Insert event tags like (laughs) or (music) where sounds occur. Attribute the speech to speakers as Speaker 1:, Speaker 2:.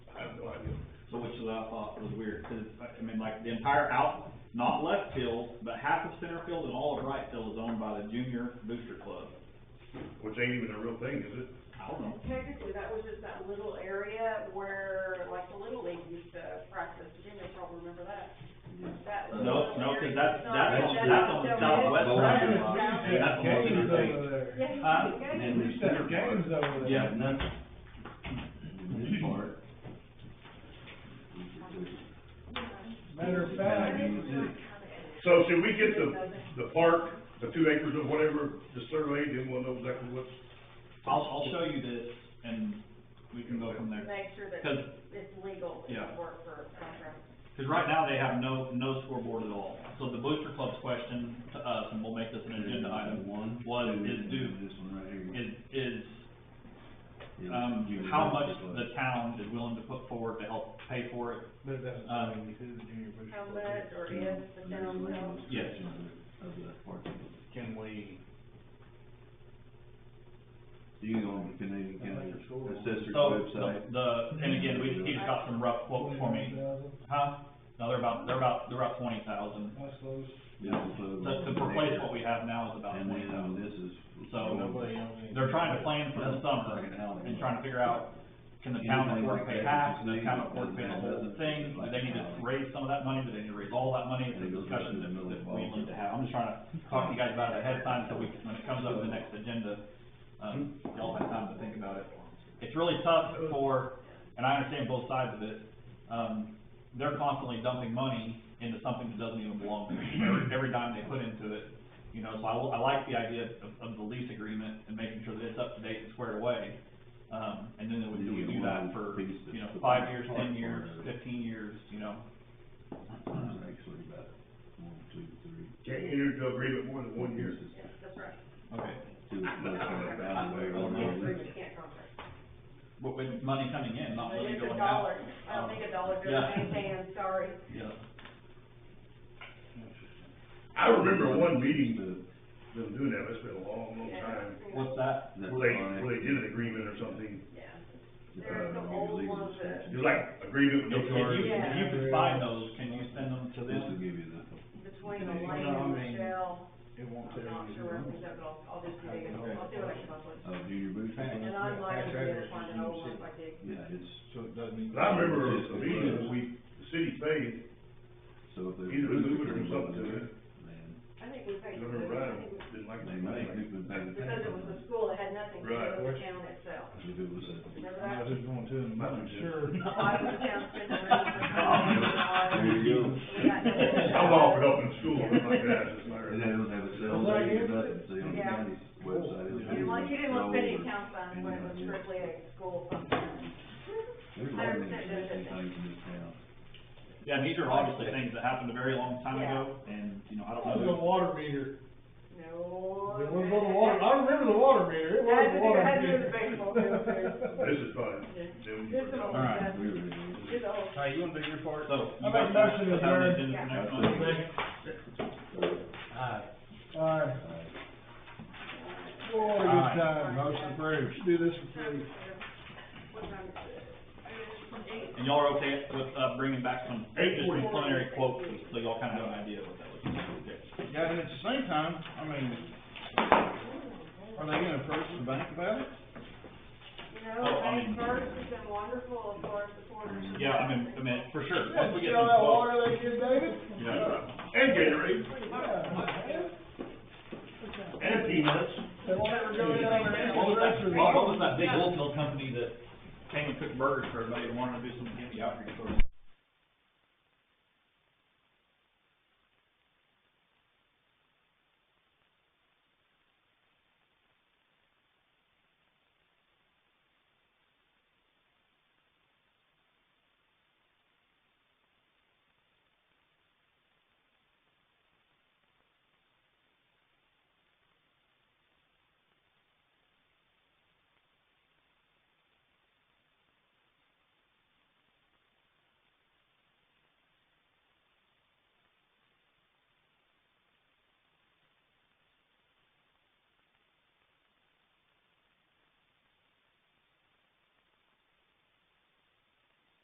Speaker 1: to that I thought was weird, cause I I mean, like, the entire out, not left field, but half of center field and all of right field is owned by the junior booster club.
Speaker 2: Which ain't even a real thing, is it?
Speaker 1: I don't know.
Speaker 3: Technically, that was just that little area where, like, the Little League used to practice, Jim, you probably remember that. That was a
Speaker 1: No,
Speaker 3: little
Speaker 1: no, 'cause
Speaker 3: area.
Speaker 1: that's-
Speaker 3: It's not-
Speaker 1: that's
Speaker 4: on-
Speaker 1: that's on the
Speaker 3: donated.
Speaker 1: southwest
Speaker 4: Right,
Speaker 1: side
Speaker 4: and
Speaker 1: of
Speaker 4: it's
Speaker 1: the-
Speaker 4: music
Speaker 1: Yeah, that's the whole
Speaker 4: games over there.
Speaker 3: Yeah, you
Speaker 1: Huh?
Speaker 3: can go.
Speaker 4: And we used to have games over there.
Speaker 1: Yeah.
Speaker 4: And
Speaker 5: Nothing. In this part. we could do-
Speaker 4: Matter of fact,
Speaker 2: So should we get the, the park, the two acres or whatever, the survey, then we'll know exactly what's,
Speaker 1: I'll, I'll show you this and we can go from there.
Speaker 3: Make sure that
Speaker 1: Cause,
Speaker 3: it's legal
Speaker 1: Yeah.
Speaker 3: to work for playground.
Speaker 1: cause right now they have no, no scoreboard at all. So the booster club's question to us, and we'll make this an agenda item,
Speaker 5: One.
Speaker 1: was,
Speaker 5: two,
Speaker 1: is
Speaker 5: and
Speaker 1: due,
Speaker 5: This one right here.
Speaker 1: is, is,
Speaker 5: Yeah,
Speaker 1: um,
Speaker 5: junior
Speaker 1: how
Speaker 5: high
Speaker 1: much
Speaker 5: school.
Speaker 1: the town is willing to put forward to help pay for it.
Speaker 4: but that's,
Speaker 1: Uh,
Speaker 4: who the junior booster
Speaker 3: How
Speaker 4: club is.
Speaker 3: much, or
Speaker 5: Yeah,
Speaker 3: if the
Speaker 5: there's a
Speaker 3: town
Speaker 5: land
Speaker 3: will.
Speaker 1: Yes.
Speaker 5: restriction Of the, of the park.
Speaker 6: Can we,
Speaker 5: You can go on the Canadian
Speaker 4: I like
Speaker 5: County
Speaker 4: your school.
Speaker 5: Assessor's
Speaker 1: So,
Speaker 5: website.
Speaker 1: the, the- and again, we just, he's got some rough quotes for me.
Speaker 4: 29,000.
Speaker 1: Huh? No, they're about, they're about, they're about twenty thousand.
Speaker 4: That's those,
Speaker 1: To, to replace what we have now is about
Speaker 5: And
Speaker 1: twenty
Speaker 5: then,
Speaker 1: thousand.
Speaker 5: um, uh, this is.
Speaker 1: So,
Speaker 4: nobody owns any.
Speaker 1: They're trying to plan for the
Speaker 5: Like
Speaker 1: summer
Speaker 5: an alley.
Speaker 1: and trying to figure out, can the town
Speaker 5: Anything
Speaker 1: afford to
Speaker 5: like
Speaker 1: pay
Speaker 5: that,
Speaker 1: half, can
Speaker 5: it's
Speaker 1: the
Speaker 5: needed,
Speaker 1: town afford to pay the
Speaker 5: doesn't-
Speaker 1: whole
Speaker 5: doesn't
Speaker 1: thing? Do
Speaker 5: like
Speaker 1: they need to
Speaker 5: alley.
Speaker 1: raise some of that money, do they need to raise all that money? It's a
Speaker 5: And it goes
Speaker 1: discussion
Speaker 5: into
Speaker 1: that,
Speaker 5: the middle
Speaker 1: that
Speaker 5: of
Speaker 1: we
Speaker 5: all
Speaker 1: need to have. I'm just trying to talk to you guys about it ahead of time, so we, when it comes up in the next agenda, um, y'all have time to think about it. It's really tough for, and I understand both sides of it, um, they're constantly dumping money into something that doesn't even belong to them, every dime they put into it. You know, so I, will- I like the idea of, of the lease agreement and making sure that it's up to date and squared away. Um, and then we
Speaker 5: You
Speaker 1: do,
Speaker 5: get
Speaker 1: do that
Speaker 5: one
Speaker 1: for,
Speaker 5: piece that's
Speaker 1: you know,
Speaker 5: the
Speaker 1: five years,
Speaker 5: part
Speaker 1: ten
Speaker 5: for
Speaker 1: years,
Speaker 5: it.
Speaker 1: fifteen years, you know.
Speaker 5: It's Actually, about one, two, three.
Speaker 2: can't enter into agreement more than one year.
Speaker 5: This is
Speaker 3: Yeah, that's right.
Speaker 1: Okay.
Speaker 5: Two, that's kind of about the way
Speaker 1: Oh, no.
Speaker 5: we're going.
Speaker 3: You can't contract.
Speaker 1: But with money coming in, not
Speaker 3: But
Speaker 1: money
Speaker 3: it's a
Speaker 1: going
Speaker 3: dollar,
Speaker 1: out.
Speaker 3: I don't think a dollar
Speaker 1: Yeah.
Speaker 3: goes anything, I'm sorry.
Speaker 1: Yeah.
Speaker 2: I remember one meeting,
Speaker 5: The-
Speaker 2: them doing that, it's been a long, long
Speaker 3: Yeah.
Speaker 2: time,
Speaker 1: What's that?
Speaker 5: that
Speaker 2: where they,
Speaker 5: line,
Speaker 2: where they did an agreement or something.
Speaker 3: Yeah,
Speaker 5: the
Speaker 3: there are some
Speaker 5: legal
Speaker 3: old ones that-
Speaker 5: description.
Speaker 2: It was like agreement
Speaker 1: If
Speaker 2: with no
Speaker 1: if
Speaker 2: charge.
Speaker 1: you, if you could
Speaker 4: Yeah.
Speaker 1: find those, can you send them to
Speaker 5: This will
Speaker 1: them?
Speaker 5: give you the. uh,
Speaker 3: between the
Speaker 5: You know,
Speaker 3: lane
Speaker 4: I
Speaker 3: and
Speaker 4: mean,
Speaker 3: the shell,
Speaker 4: It
Speaker 3: I'm
Speaker 4: won't tell
Speaker 3: not
Speaker 4: you.
Speaker 3: sure, but I'll, I'll just do it, I'll see what I can come up with.
Speaker 5: Uh, junior boots?
Speaker 4: Fact.
Speaker 3: And I'm liable to
Speaker 4: Tax
Speaker 3: get
Speaker 4: records
Speaker 3: it, find
Speaker 4: is
Speaker 3: an old one
Speaker 4: used.
Speaker 3: if I did.
Speaker 5: Yeah, it's,
Speaker 4: So it doesn't even.
Speaker 2: But I remember a meeting that we, the city paid,
Speaker 5: so if there's.
Speaker 2: either move it or something to it,
Speaker 5: Then,
Speaker 3: I think we paid.
Speaker 2: I
Speaker 3: for
Speaker 2: remember
Speaker 3: it. I
Speaker 2: Ryan
Speaker 3: think we-
Speaker 2: didn't like
Speaker 5: they
Speaker 2: that.
Speaker 5: may, if we've been.
Speaker 3: Because it was the school, it had nothing to do
Speaker 2: Right.
Speaker 3: with the town itself.
Speaker 5: If it was a.
Speaker 3: Remember
Speaker 4: I
Speaker 3: that?
Speaker 4: don't know who's going to them, but I'm
Speaker 2: (laughs)
Speaker 4: sure. (laughs)
Speaker 3: A lot of the town spent their money for
Speaker 4: Oh,
Speaker 3: college.
Speaker 5: There you go.
Speaker 3: We got nothing.
Speaker 2: I'm all for helping the school, but like that, it's not.
Speaker 5: And they don't have a cell,
Speaker 4: Well,
Speaker 5: they do
Speaker 4: I guess
Speaker 5: nothing, see on the
Speaker 3: Yeah.
Speaker 5: county's website. it'll
Speaker 3: You
Speaker 5: be
Speaker 3: didn't want, you didn't want to
Speaker 5: all
Speaker 3: spend any
Speaker 5: over.
Speaker 3: town funds when it was strictly a school function.
Speaker 5: There's a lot of
Speaker 3: Hundred percent
Speaker 5: interesting
Speaker 3: benefit.
Speaker 5: things in this town.
Speaker 1: Yeah, and these are obviously things that happened a very long time ago, and, you know, I
Speaker 4: It
Speaker 1: don't
Speaker 4: was
Speaker 1: know.
Speaker 4: a water meter.
Speaker 3: No.
Speaker 4: It was on the water, I remember the water meter, it was
Speaker 3: Had
Speaker 4: a
Speaker 3: to do-
Speaker 4: water
Speaker 3: had to do
Speaker 4: meter.
Speaker 3: with the baseball field, too.
Speaker 2: This is probably, them
Speaker 3: This is all.
Speaker 2: for-
Speaker 1: Alright.
Speaker 3: done.
Speaker 5: We were in-
Speaker 3: It's all.
Speaker 6: all right, you wanna do your part?
Speaker 1: So.
Speaker 4: I make a motion to adjourn.
Speaker 6: Aye.
Speaker 4: Alright, boy,
Speaker 6: All
Speaker 4: good
Speaker 6: right.
Speaker 4: time, motion approved, do this for free.
Speaker 3: What time is it? I
Speaker 1: And y'all are okay with, uh, bringing back some,
Speaker 2: Eight
Speaker 1: just
Speaker 2: forty.
Speaker 1: preliminary quotes, so y'all kinda have an idea of what that looks like. Okay.
Speaker 6: Yeah, and at the same time, I mean, are they gonna approach the bank about it?
Speaker 3: You know,
Speaker 1: Oh, I
Speaker 3: May
Speaker 1: mean-
Speaker 3: first has been wonderful as far as supporters.
Speaker 1: Yeah, I mean, I mean, for sure, once we get
Speaker 4: Sell
Speaker 1: some
Speaker 4: that
Speaker 1: quotes,
Speaker 4: water they give David?
Speaker 1: yeah.
Speaker 2: And Gatorade, and peanuts.
Speaker 4: They won't ever go down there and
Speaker 1: What was that,
Speaker 4: answer the
Speaker 1: what was that big oil company that came and cooked burgers for everybody and wanted to do some, give me out here?